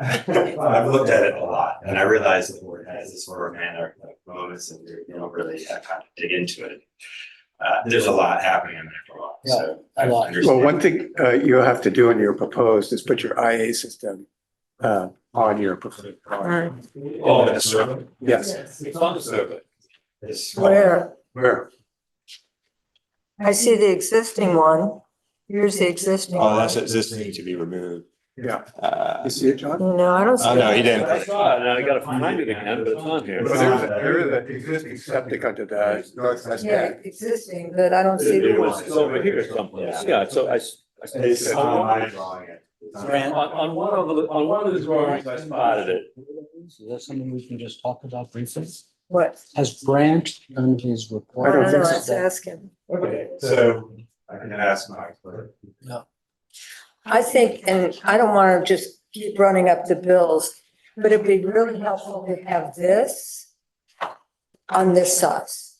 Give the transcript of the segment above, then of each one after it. I've looked at it a lot and I realize the board has this sort of manner of moments and you don't really have time to dig into it. Uh, there's a lot happening in there for a lot, so. I a lot. understand. Well, one thing uh, you'll have to do in your proposed is put your IA system uh, on your proposed. Right. Oh, the survey. Yes, It's on the survey. It's- Where, where? I see the existing one, here's the existing Oh, one. that's, this needs to be removed. Yeah. Uh, You see it, John? No, I don't see. oh, no, that. he didn't. I saw it, and I gotta find it again, but it's on here. Well, There is a- there is an existing septic under the northwest Yeah, back. existing, but I don't see It the was one. it's over here someplace, yeah, so I. s- I s- It's on my drawing. it. It's on- On, on one of the, on one of the drawings, I spotted it. Is that something we can just talk about briefly? What? Has Brandt done his report? I don't No, no, think so. let's ask him. Okay, so I can ask my clerk. I think, and I don't want to just keep running up the bills, but it'd be really helpful to have this on this size.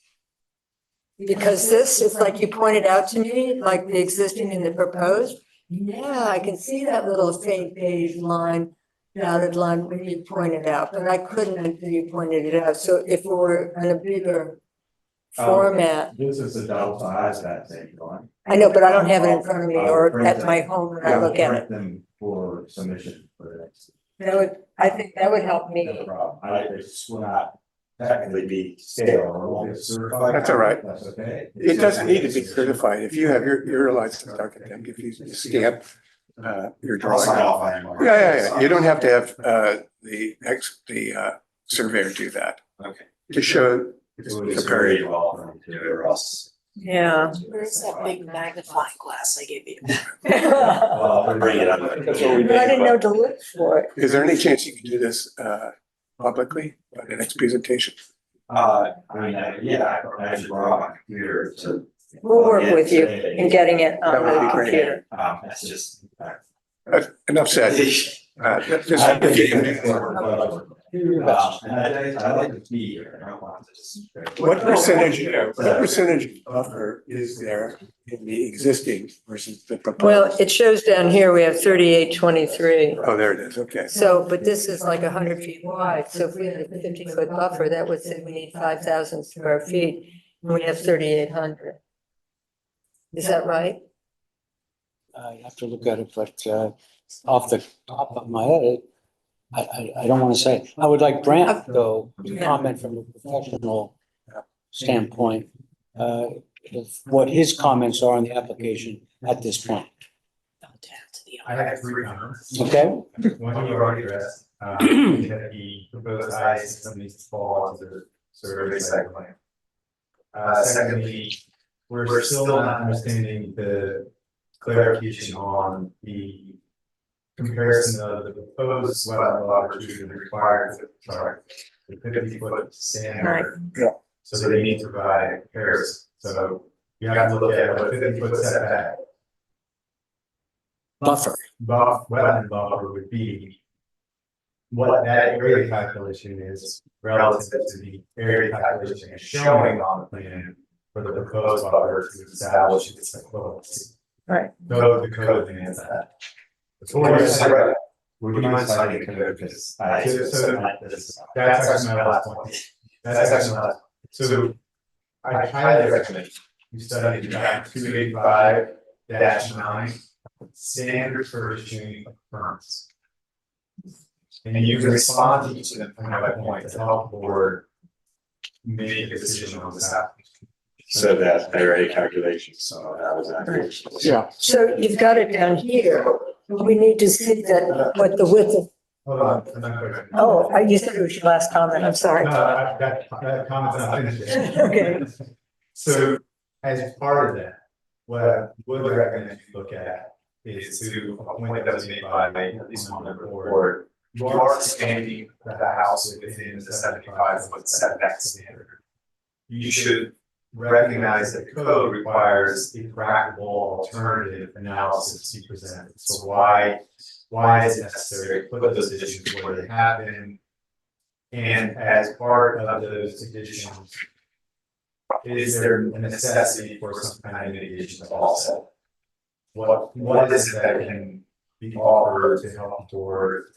Because this is like you pointed out to me, like the existing and the proposed. Yeah, I can see that little faint beige line, dotted line when you pointed out, but I couldn't until you pointed it out. So if we were in a bigger format, This is the double size of that thing going. I know, but I don't have it in front of me or at my home and I look at it. Them for submission for the next. That would, I think that would help No me. problem. I, it's not technically be stale or won't be certified. That's all right. That's okay. It doesn't need to be certified. If you have your, your license document, if you stamp uh, your I'll drawing. sign Yeah, off on it. yeah, yeah. You don't have to have uh, the ex, the uh, surveyor do that. Okay. To show, It would be very well from the other else. Yeah. Where's that big magnifying glass I gave you? But Well, Uh, I'll bring it up. That's what we made. I didn't know to look for it. is there any chance you can do this uh, publicly by the next presentation? Uh, I mean, I- yeah, I actually brought my computer to. We'll work with you in and getting it Oh, That on would the be great. computer. Um, that's just. Uh, Enough said. Uh, I'm getting just- mixed up. Uh, and I, I like to be here, I don't want to just. What percentage, what But- percentage buffer is there in the existing versus the proposed? Well, it shows down here, we have thirty-eight twenty-three. Oh, there it is, okay. So, but this is like hundred feet wide, so if we had a fifty-foot buffer, that would say we need five thousand square feet. And we have thirty-eight hundred. Is that right? I have to look at it, but uh, off the top of my head, I, I, I don't want to say. I would like Brandt, though, to comment from a professional standpoint, uh, of what his comments are on the application at this point, Down to the I have three comments. okay? One you already addressed, um, that the proposed I system needs to fall onto the survey site plan. Uh, secondly, we're still not understanding the clarification on the comparison of the proposed wetland buffer to the required, sorry, the fifty foot standard. Yeah. So they need to provide a comparison, so you have to look at what fifty foot setback Buffer. buff, wetland buffer would be what that area calculation is relative to the area calculation is showing on the plan for the proposed buffer to establish its equivalency. Right. Go to the code and answer that. Before you say, right, would you mind citing code because I, so, so that's actually my last point. That's actually my last, so I highly recommend you study the draft two eighty-five nine standard for issuing permits. And you can respond to each of them point by point to help the board make a decision on this application. So that already calculations, so that was accurate. Yeah. So you've got it down here. We need to see that, what the width of Hold on, I'm not quick. Oh, I- you said it was your last comment, I'm sorry. No, I- that, that comment's not finished yet. Okay. So as part of that, what I would recommend you look at is to, a point that was made by at least one member of the board. You are standing that the house within the seventy-five foot setback standard. You should recognize that code requires a practical alternative analysis to be presented. So why, why is it necessary to put those additions where they happen? And as part of those additions, is there a necessity for some kind of mitigation to offset? What, what is it that can be offered to help toward